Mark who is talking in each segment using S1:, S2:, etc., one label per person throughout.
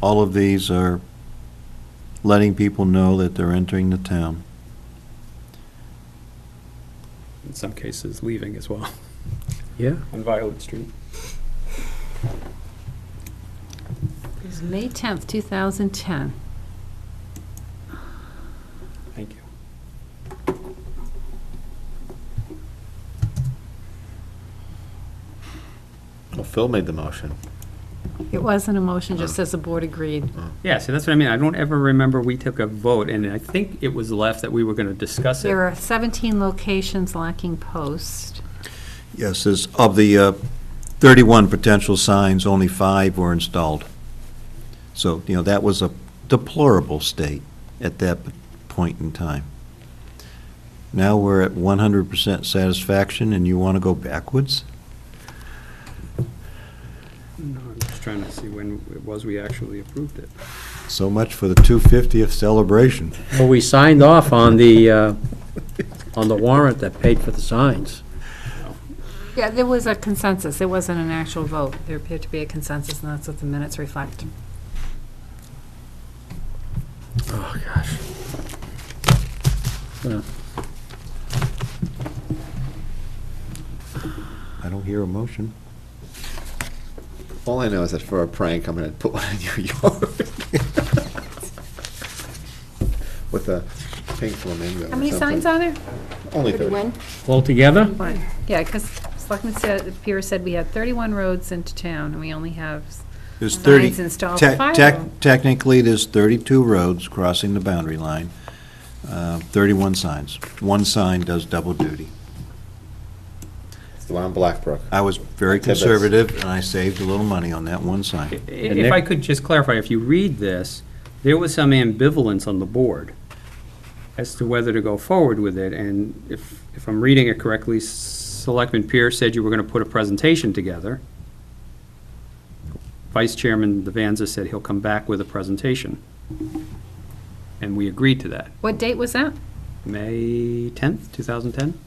S1: all of these are letting people know that they're entering the town.
S2: in some cases leaving as well
S3: Yeah.
S2: on Violet Street.
S4: It was May 10th, 2010.
S2: Thank you.
S5: Well, Phil made the motion.
S4: It wasn't a motion, just says the board agreed.
S2: Yeah, so that's what I mean. I don't ever remember we took a vote, and I think it was left that we were going to discuss
S4: There
S2: it.
S4: are 17 locations lacking posts.
S1: Yes, there's, of the uh, 31 potential signs, only five were installed. So, you know, that was a deplorable state at that point in time. Now we're at 100% satisfaction, and you want to go backwards?
S2: No, I'm just trying to see when it was we actually approved it.
S1: So much for the 250th celebration.
S3: Well, we signed off on the, uh, on the warrant that paid for the signs.
S4: Yeah, there was a consensus. It wasn't an actual vote. There appeared to be a consensus, and that's what the minutes reflect.
S3: Oh, gosh.
S1: I don't hear a motion.
S5: All I know is that for a prank, I'm gonna put one in your yard. With a pink flamingo or
S4: How many signs
S5: something.
S4: are there?
S5: Only thirty.
S3: All together?
S4: One. Yeah, because Selectman said, Pierce said we had 31 roads into town, and we only have,
S1: There's
S4: Signs
S1: 30.
S4: installed
S1: tec-
S4: by
S1: tec-
S4: law.
S1: Technically, there's 32 roads crossing the boundary line, uh, 31 signs. One sign does double duty.
S5: It's the one on Blackbrook.
S1: I was very
S5: Tidbits.
S1: conservative, and I saved a little money on that one sign.
S2: If I
S3: Nick-
S2: could just clarify, if you read this, there was some ambivalence on the board as to whether to go forward with it, and if, if I'm reading it correctly, Selectman Pierce said you were going to put a presentation together. Vice Chairman Devanza said he'll come back with a presentation. And we agreed to that.
S4: what date was that?
S2: May 10th, 2010?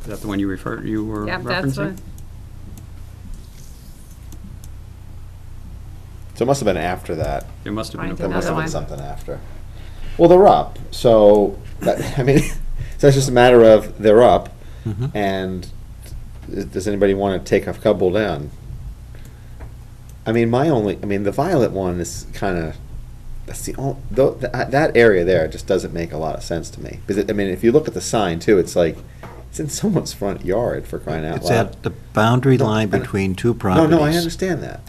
S2: Is that the one you refer, you were
S4: Yep, that's
S2: referencing?
S4: what,
S5: So it must have been after that.
S2: There must have been a
S4: Right,
S5: There
S2: vote.
S5: must have
S4: Another
S5: been
S4: one.
S5: something after. Well, they're up, so, that- I mean, so it's just a matter of they're up,
S1: Mm-hmm.
S5: and does anybody want to take a couple down? I mean, my only, I mean, the violet one is kind of, that's the only, that, uh, that area there just doesn't make a lot of sense to me. Because, it- I mean, if you look at the sign too, it's like, it's in someone's front yard for crying out
S1: It's
S5: loud.
S1: at the boundary
S5: No,
S1: line
S5: I know.
S1: between two
S5: No,
S1: properties.
S5: no, I understand that.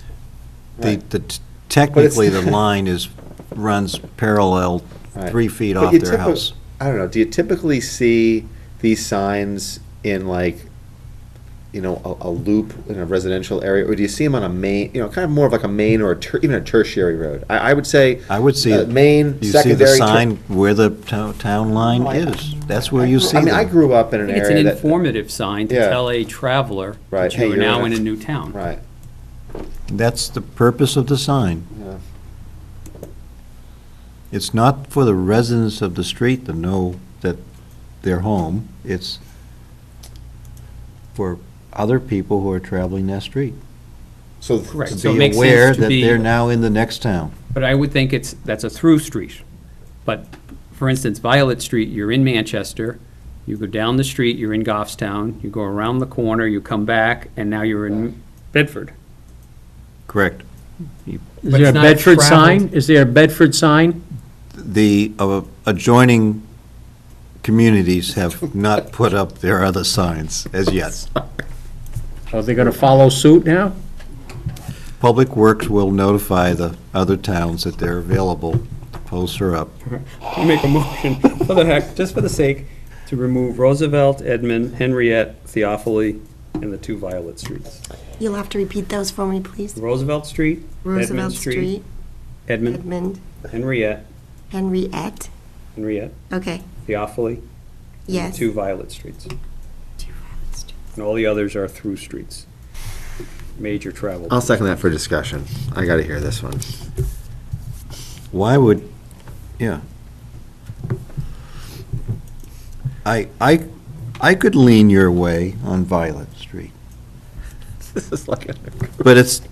S1: The-
S5: Right.
S1: the t- Technically, the
S5: But it's-
S1: line is, runs parallel
S5: Right.
S1: three feet
S5: But
S1: off
S5: you
S1: their
S5: typi-
S1: house.
S5: I don't know. Do you typically see these signs in like, you know, a, a loop in a residential area, or do you see them on a main, you know, kind of more of like a main or a ter- even a tertiary road? I, I would say
S1: I would see,
S5: uh,
S1: it.
S5: main,
S1: you see the
S5: secondary. ter-
S1: sign where the to- town line
S5: No, I-
S1: is. That's where you see
S5: I mean, I
S1: them.
S5: grew up in
S2: I
S5: an
S2: think it's
S5: area
S2: an
S5: that
S2: informative sign to
S5: Yeah.
S2: tell a traveler
S5: Right,
S2: that
S5: hey,
S2: you are
S5: you're
S2: now
S5: in
S2: in
S5: a-
S2: a new town.
S5: right.
S1: That's the purpose of the sign.
S5: Yeah.
S1: It's not for the residents of the street to know that they're home. It's for other people who are traveling that street.
S5: So
S2: Correct.
S1: To
S2: So it
S1: be
S2: makes sense
S1: aware
S2: to
S1: that
S2: be-
S1: they're now in the next town.
S2: But I would think it's, that's a through street. But, for instance, Violet Street, you're in Manchester, you go down the street, you're in Goffstown, you go around the corner, you come back, and now you're in Bedford.
S1: Correct.
S3: Is
S2: But
S3: there a
S2: it's not a
S3: Bedford
S2: traveled-
S3: sign? Is there a Bedford sign?
S1: The uh, adjoining communities have not put up their other signs as yet.
S3: Are they gonna follow suit now?
S1: Public Works will notify the other towns that they're available, to post her up.
S2: You make a motion, for the heck, just for the sake, to remove Roosevelt, Edmund, Henriette, Theophily, and the two Violet Streets.
S6: You'll have to repeat those for me, please.
S2: Roosevelt Street,
S6: Roosevelt
S2: Edmund Street,
S6: Street,
S2: Edmund,
S6: Edmund,
S2: Henriette,
S6: Henriette.
S2: Henriette,
S6: Okay,
S2: Theophily,
S6: yes.
S2: two Violet Streets. And all the others are through streets, major travel.
S5: I'll second that for discussion. I got to hear this one.
S1: Why would, yeah. I, I, I could lean your way on Violet Street,
S5: this is like a
S1: but it's,